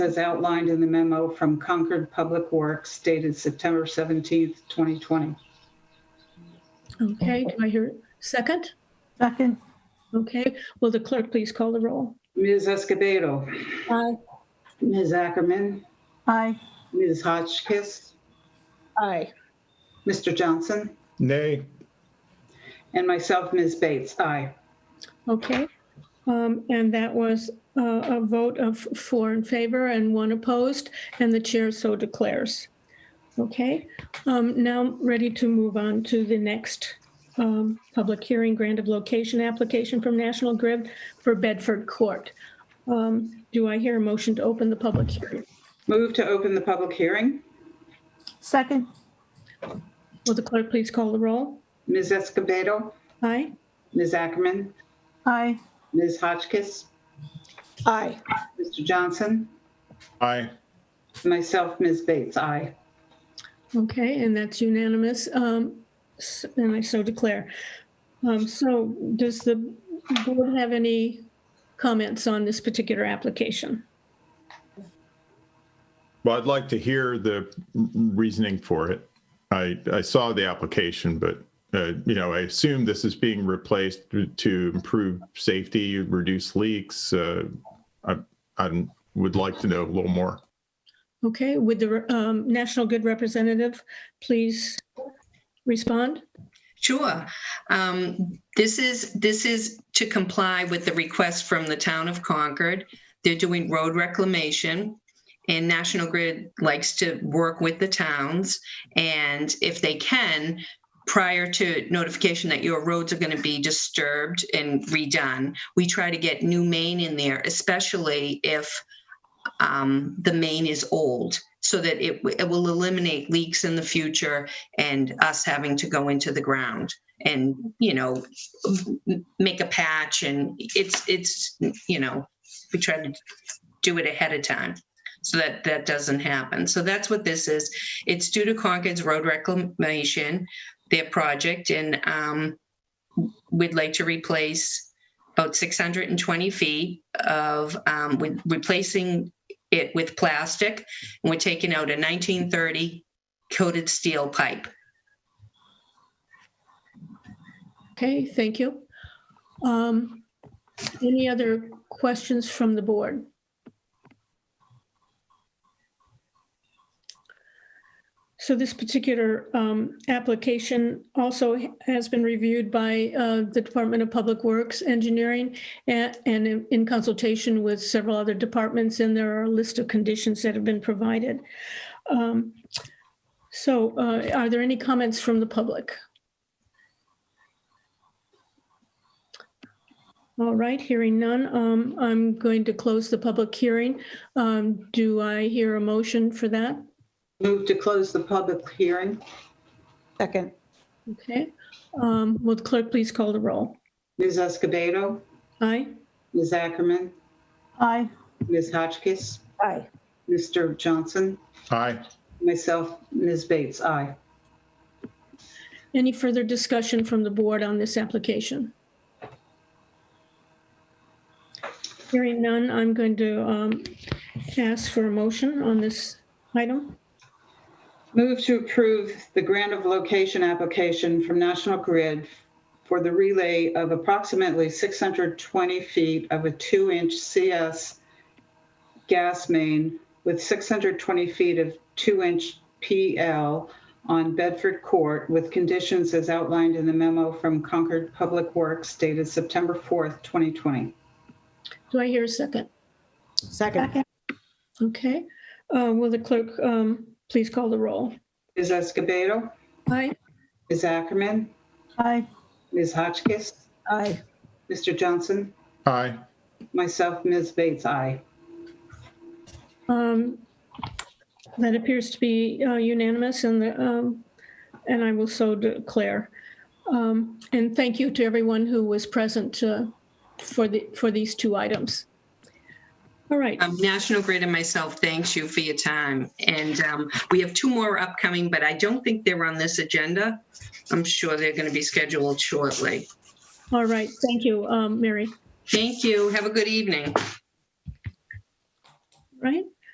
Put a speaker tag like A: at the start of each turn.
A: as outlined in the memo from Concord Public Works dated September 17th, 2020.
B: Okay, do I hear second?
C: Second,
B: Okay, will the clerk please call the roll?
A: Ms. Escobedo,
B: Aye.
A: Ms. Ackerman,
C: aye.
A: Ms. Hotchkiss,
B: Aye.
A: Mr. Johnson,
D: Nay,
A: and myself, Ms. Bates. Aye.
B: Okay, um, and that was uh, a vote of four in favor and one opposed, and the chair so declares. Okay, um, now ready to move on to the next um, public hearing, grant of location application from National Grid for Bedford Court. Um, Do I hear a motion to open the public hearing?
A: Move to open the public hearing.
C: Second,
B: Will the clerk please call the roll?
A: Ms. Escobedo,
B: Aye?
A: Ms. Ackerman,
C: aye.
A: Ms. Hotchkiss,
B: Aye.
A: Mr. Johnson,
D: aye.
A: and myself, Ms. Bates. Aye.
B: Okay, and that's unanimous, um, s- and I so declare. Um, So does the board have any comments on this particular application?
D: Well, I'd like to hear the reasoning for it. I, I saw the application, but, uh, you know, I assume this is being replaced to improve safety, reduce leaks. Uh, I, I would like to know a little more.
B: Okay, would the um, National Good representative please respond?
E: Sure. Um, This is, this is to comply with the request from the town of Concord. They're doing road reclamation. And National Grid likes to work with the towns. And if they can, prior to notification that your roads are going to be disturbed and redone, we try to get new main in there, especially if um, the main is old, so that it w- it will eliminate leaks in the future and us having to go into the ground and you know m- make a patch and it's it's you know we try to do it ahead of time so that that doesn't happen so that's what this is it's due to concord's road reclamation their project and um, we'd like to replace about 620 feet of um, with replacing it with plastic and we're taking out a 1930 coated steel pipe
B: Okay, thank you. Um, Any other questions from the board? So this particular um, application also has been reviewed by uh, the Department of Public Works Engineering a- and in- in consultation with several other departments, and there are a list of conditions that have been provided. Um, So uh, are there any comments from the public? All right, hearing none, um, I'm going to close the public hearing. Um, Do I hear a motion for that?
A: Move to close the public hearing.
C: Second,
B: Okay, um, will the clerk please call the roll?
A: Ms. Escobedo,
B: Aye?
A: Ms. Ackerman,
C: aye.
A: Ms. Hotchkiss,
C: Aye.
A: Mr. Johnson,
D: Aye.
A: myself, Ms. Bates. Aye.
B: Any further discussion from the board on this application? Hearing none, I'm going to um, ask for a motion on this item.
A: Move to approve the grant of location application from National Grid for the relay of approximately 620 feet of a two-inch CS gas main with 620 feet of two-inch PL on Bedford Court with conditions as outlined in the memo from Concord Public Works dated September 4th, 2020.
B: Do I hear a second?
C: Second,
B: Okay, Uh, will the clerk um, please call the roll?
A: Ms. Escobedo,
B: Aye?
A: Ms. Ackerman,
C: aye.
A: Ms. Hotchkiss,
C: Aye.
A: Mr. Johnson,
D: Aye.
A: myself, Ms. Bates, aye.
B: Um, That appears to be uh, unanimous and, the, um, and I will so declare. Um, And thank you to everyone who was present uh, for the, for these two items. All right,
E: Um, National Grid and myself thanks you for your time. And um, we have two more upcoming, but I don't think they're on this agenda. I'm sure they're going to be scheduled shortly.
B: all right, thank you, um, Mary,
E: Thank you. Have a good evening.
B: right?